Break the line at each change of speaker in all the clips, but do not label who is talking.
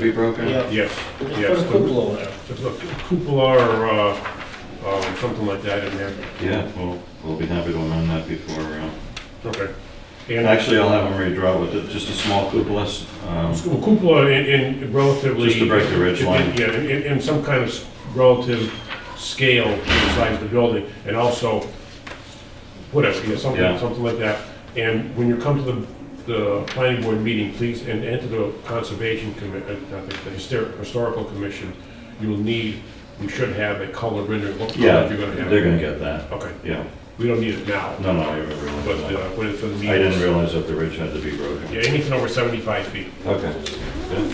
be broken?
Yeah.
Yes,
Just
yes.
put a cupola there.
Just a Cupola or, uh, um, something like that in there.
Yeah, we'll, we'll be happy to amend that before, uh,
Okay. And
actually, I'll have them redraw with it, just a small cupola, s- um,
Well, Cupola in- in relatively...
Just to break the ridge line.
Yeah, in, in- in some kind of s- relative scale to the size of the building, and also, whatever, yeah,
Yeah.
something, something like that. And when you come to the, the planning board meeting, please, and enter the conservation commit, uh, not the the hyster- historical commission, you'll need, you should have a color rendering, what
yeah,
color you're gonna have.
they're gonna get that,
Okay,
yeah.
we don't need it now,
No, no, I didn't
but,
realize
uh,
that.
when it's for the meetings.
I didn't realize that the ridge had to be
Yeah,
broken.
anything over seventy-five feet,
Okay. good.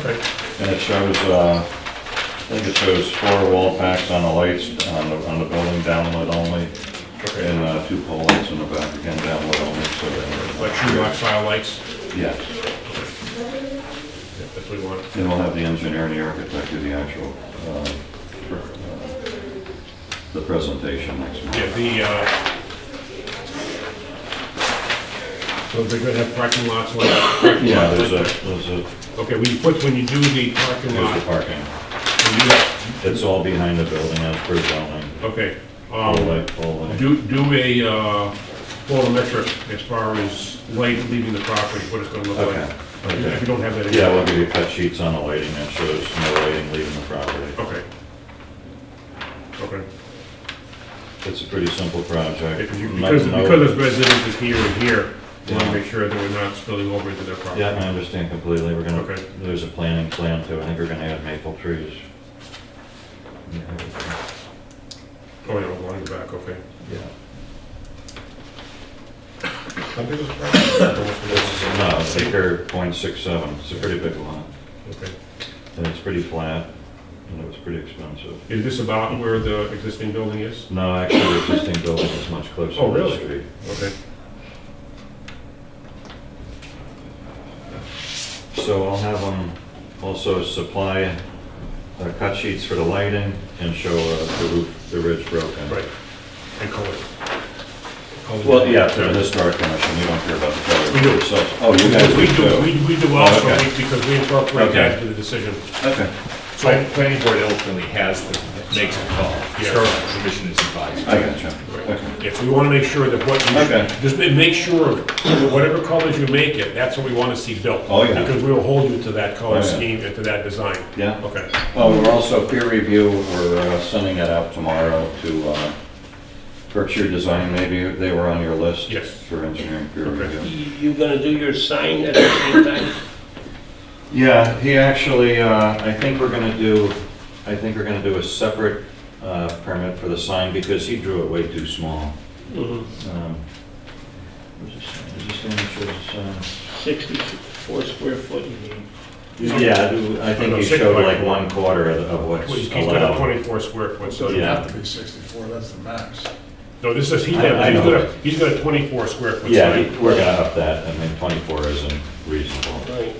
okay.
And it shows, uh, I think it shows four wall packs on the lights, on the, on the building, downlit only, and uh, two pole lights in the back, again, downlit only, so. they're-
Like true rock style lights,
Yes.
if we want.
And we'll have the engineer and the architect do the actual, uh, pr- uh, the presentation next
Yeah,
month.
the, uh, so they're gonna have parking lots, like, parking
Yeah,
lots
there's
like
a, there's a,
that. Okay, when you put, when you do the parking
there's the
lot,
parking.
when you,
It's all behind the building, as per zoning.
okay,
All
um,
light, all light.
do, do a, uh, photometric as far as light leaving the property, what it's gonna look
Okay,
like. If
okay.
you don't have that. in-
Yeah, we'll give you cut sheets on the lighting that shows no lighting leaving the property.
Okay. Okay,
It's a pretty simple project.
because you,
No-
because,
no-
because it's residences here and here, you wanna
Yeah.
make sure that we're not spilling over into their property.
Yeah, I understand completely. We're gonna,
Okay.
there's a planning plan too. I think we're gonna add maple trees.
Oh, yeah, along the back, okay.
Yeah.
How big is the property?
No, it's acre point six seven, it's a pretty big lot,
Okay.
and it's pretty flat, and it was pretty expensive.
Is this about where the existing building is?
No, actually, the existing building is much closer
Oh,
to the
really?
street.
Okay.
So I'll have them also supply uh, cut sheets for the lighting and show uh, the roof, the ridge broken.
Right. And color. Color.
Well, yeah, to the historic commission, you don't care about the color.
We do.
So- Oh, you guys
We
do
do,
too?
we- we do also,
Okay.
we- because we incorporate that
Okay.
into the decision.
Okay,
Plan- Planning board ultimately has, the makes the call.
Yeah.
Historical commission is advised.
I got you. Okay.
Yes, we want to make sure that what
Okay.
you, just ma- make sure that whatever colors you make it, that's what we want to see built.
Oh, yeah.
Because we will hold you to that
Oh,
color
yeah.
scheme and to that design.
Yeah.
Okay.
Well, we're also peer review, we're uh, sending it out tomorrow to uh, Berkshire Design, maybe they were on your list?
Yes.
For engineering peer
Okay.
review.
You gonna do your sign at the same time?
Yeah, he actually, uh, I think we're gonna do, I think we're gonna do a separate uh, permit for the sign because he drew it way too small.
Mm-hmm.
Um, where's the sign? Is this the one that shows
Sixty-four square foot you need.
the sign? Yeah, I do- I think
No,
he
six by
showed like
four.
one quarter of of what's
He's got a
allowed.
24 square foot, so.
So it'd
Yeah.
have to be 64, that's the max.
No, this is, he
I- I
has, he's
know.
got a, he's got a 24 square foot sign.
Yeah, he- we're gonna up that, I mean, 24 isn't reasonable.
Right.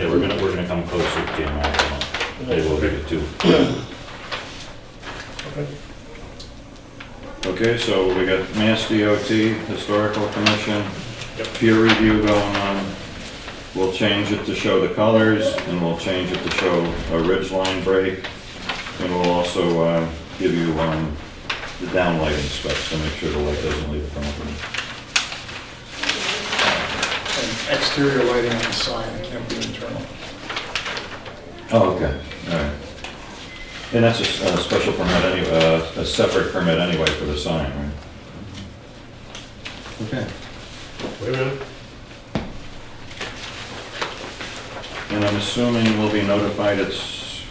Yeah, we're gonna, we're gonna come closer to the maximum. They will give it two. Okay, so we got Mass DOT, Historical Commission,
Yep.
peer review going on. We'll change it to show the colors, and we'll change it to show a ridge line break. And we'll also, uh, give you, um, the downlighting specs to make sure the light doesn't leave the property.
And exterior lighting on the sign, it can't be internal.
Oh, okay, all right. And that's a s- a special permit anyway, uh, a separate permit anyway for the sign, right? Okay.
Wait a minute.
And I'm assuming we'll be notified it's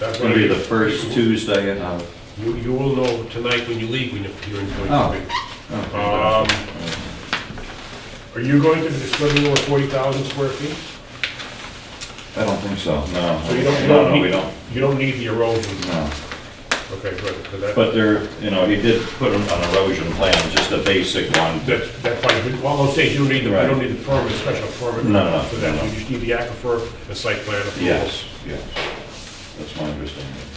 That's
gonna be
what I-
the first Tuesday uh, of...
You, you will know tonight when you leave when you're in
Oh.
Point Street. Um, Are you going to split it over 40,000 square feet?
I don't think so, no.
So you don't, you
No,
don't
no, we
need,
don't,
you don't need the erosion.
no.
Okay, good, 'cause that,
But there, you know, he did put an an erosion plan, just a basic one.
that's, that's fine. But All I'm saying, you don't need the, you
Right.
don't need the permit, special permit.
No, no,
For that,
no.
you just need the aquifer, the site plan approval.
Yes, yes. That's my understanding.